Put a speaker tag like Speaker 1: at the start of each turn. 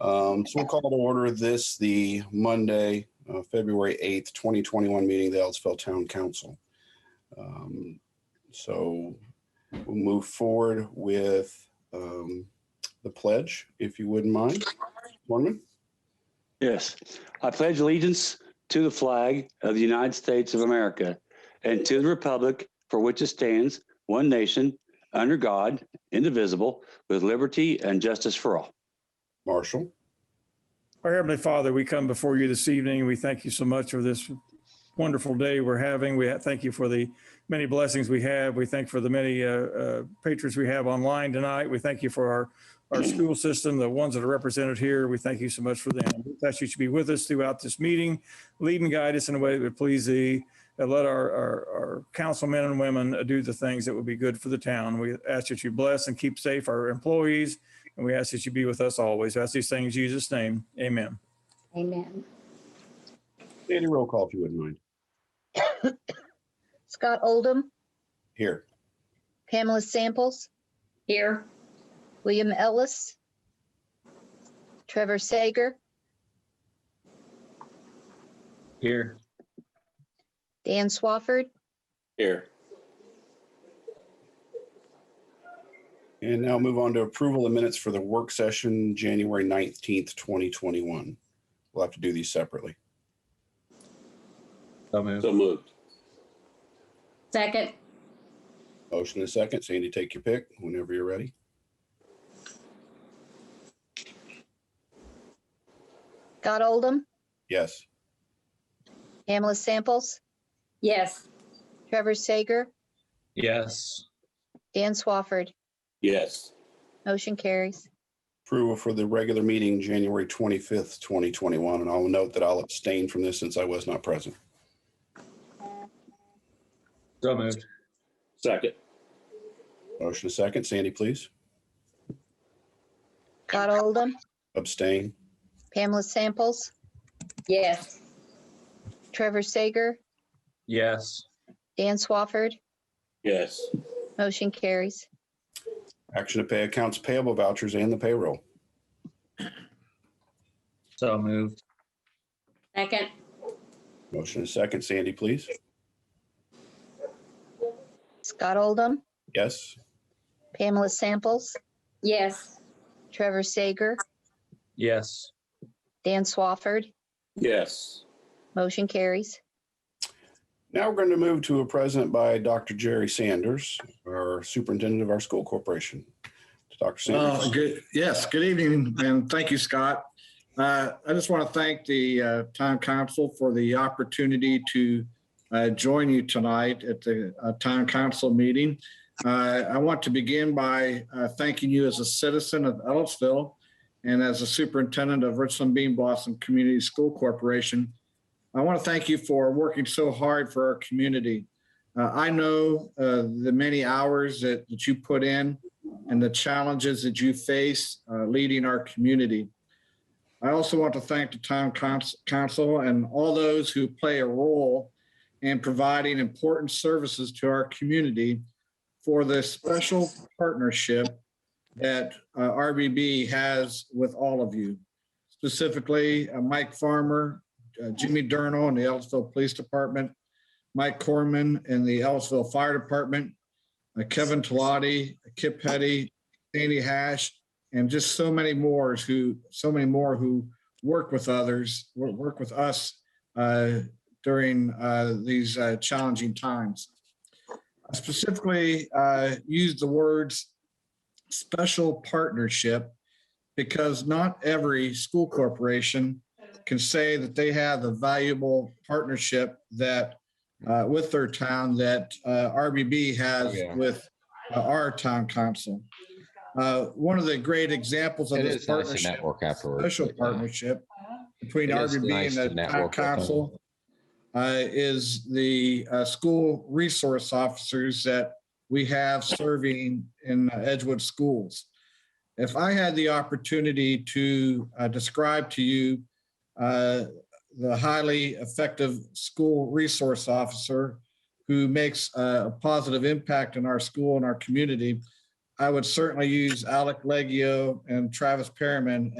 Speaker 1: Um, so we'll call to order this, the Monday, uh, February 8th, 2021 meeting of the Ellisville Town Council. Um, So we'll move forward with um, the pledge, if you wouldn't mind. Norman?
Speaker 2: Yes, I pledge allegiance to the flag of the United States of America and to the republic for which it stands, one nation, under God, indivisible, with liberty and justice for all.
Speaker 1: Marshall?
Speaker 3: Our Heavenly Father, we come before you this evening. We thank you so much for this wonderful day we're having. We thank you for the many blessings we have. We thank for the many uh, uh, patrons we have online tonight. We thank you for our, our school system, the ones that are represented here. We thank you so much for them. We ask you to be with us throughout this meeting. Lead and guide us in a way that would please thee. And let our, our, our councilmen and women uh, do the things that would be good for the town. We ask that you bless and keep safe our employees, and we ask that you be with us always. We ask these things in Jesus' name. Amen.
Speaker 4: Amen.
Speaker 1: Sandy, roll call, if you wouldn't mind.
Speaker 4: Scott Oldham,
Speaker 1: Here.
Speaker 4: Pamela Samples. Here. William Ellis. Trevor Sager.
Speaker 5: Here.
Speaker 4: Dan Swafford.
Speaker 5: Here.
Speaker 1: And now move on to approval of minutes for the work session, January 19th, 2021. We'll have to do these separately.
Speaker 5: So moved. So moved.
Speaker 6: Second,
Speaker 1: Motion and second. Sandy, take your pick whenever you're ready.
Speaker 4: Scott Oldham,
Speaker 1: Yes.
Speaker 4: Pamela Samples,
Speaker 6: yes.
Speaker 4: Trevor Sager,
Speaker 5: Yes.
Speaker 4: Dan Swafford.
Speaker 2: Yes.
Speaker 4: Motion carries.
Speaker 1: Approval for the regular meeting, January 25th, 2021. And I'll note that I'll abstain from this since I was not present.
Speaker 5: So moved.
Speaker 2: Second.
Speaker 1: Motion and second. Sandy, please.
Speaker 4: Scott Oldham,
Speaker 1: Abstain.
Speaker 4: Pamela Samples,
Speaker 6: Yes.
Speaker 4: Trevor Sager,
Speaker 5: Yes.
Speaker 4: Dan Swafford.
Speaker 2: Yes.
Speaker 4: Motion carries.
Speaker 1: Action to pay accounts payable vouchers and the payroll.
Speaker 5: So moved.
Speaker 6: Second,
Speaker 1: Motion and second. Sandy, please.
Speaker 4: Scott Oldham,
Speaker 1: Yes.
Speaker 4: Pamela Samples,
Speaker 6: yes.
Speaker 4: Trevor Sager,
Speaker 5: Yes.
Speaker 4: Dan Swafford.
Speaker 2: Yes.
Speaker 4: Motion carries.
Speaker 1: Now we're going to move to a present by Dr. Jerry Sanders, our superintendent of our school corporation. Dr.
Speaker 7: Uh,
Speaker 1: Sanders.
Speaker 7: Good, yes, good evening, and thank you, Scott. Uh, I just want to thank the uh, town council for the opportunity to uh, join you tonight at the uh, town council meeting. Uh, I want to begin by uh, thanking you as a citizen of Ellisville and as a superintendent of Richland Bean Blossom Community School Corporation. I want to thank you for working so hard for our community. Uh, I know uh, the many hours that that you put in and the challenges that you face uh, leading our community. I also want to thank the town cons- council and all those who play a role in providing important services to our community for the special partnership that uh, RBB has with all of you. Specifically, uh, Mike Farmer, uh, Jimmy Durno and the Ellisville Police Department, Mike Corman and the Ellisville Fire Department, uh, Kevin Talati, Kip Petty, Andy Hash, and just so many more who, so many more who work with others, wo- work with us uh, during uh, these uh, challenging times. I Specifically, uh, use the words special partnership because not every school corporation can say that they have the valuable partnership that uh, with their town that uh, RBB has with uh, our town council. Uh, One of the great examples of
Speaker 8: It
Speaker 7: this
Speaker 8: is nice to
Speaker 7: partnership,
Speaker 8: network afterwards.
Speaker 7: special
Speaker 8: but, uh,
Speaker 7: partnership between
Speaker 8: It is
Speaker 7: RBB
Speaker 8: nice to
Speaker 7: and the town
Speaker 8: network with them.
Speaker 7: council uh, is the uh, school resource officers that we have serving in Edgewood schools. If I had the opportunity to uh, describe to you uh, the highly effective school resource officer who makes uh, a positive impact in our school and our community, I would certainly use Alec Leggio and Travis Perriman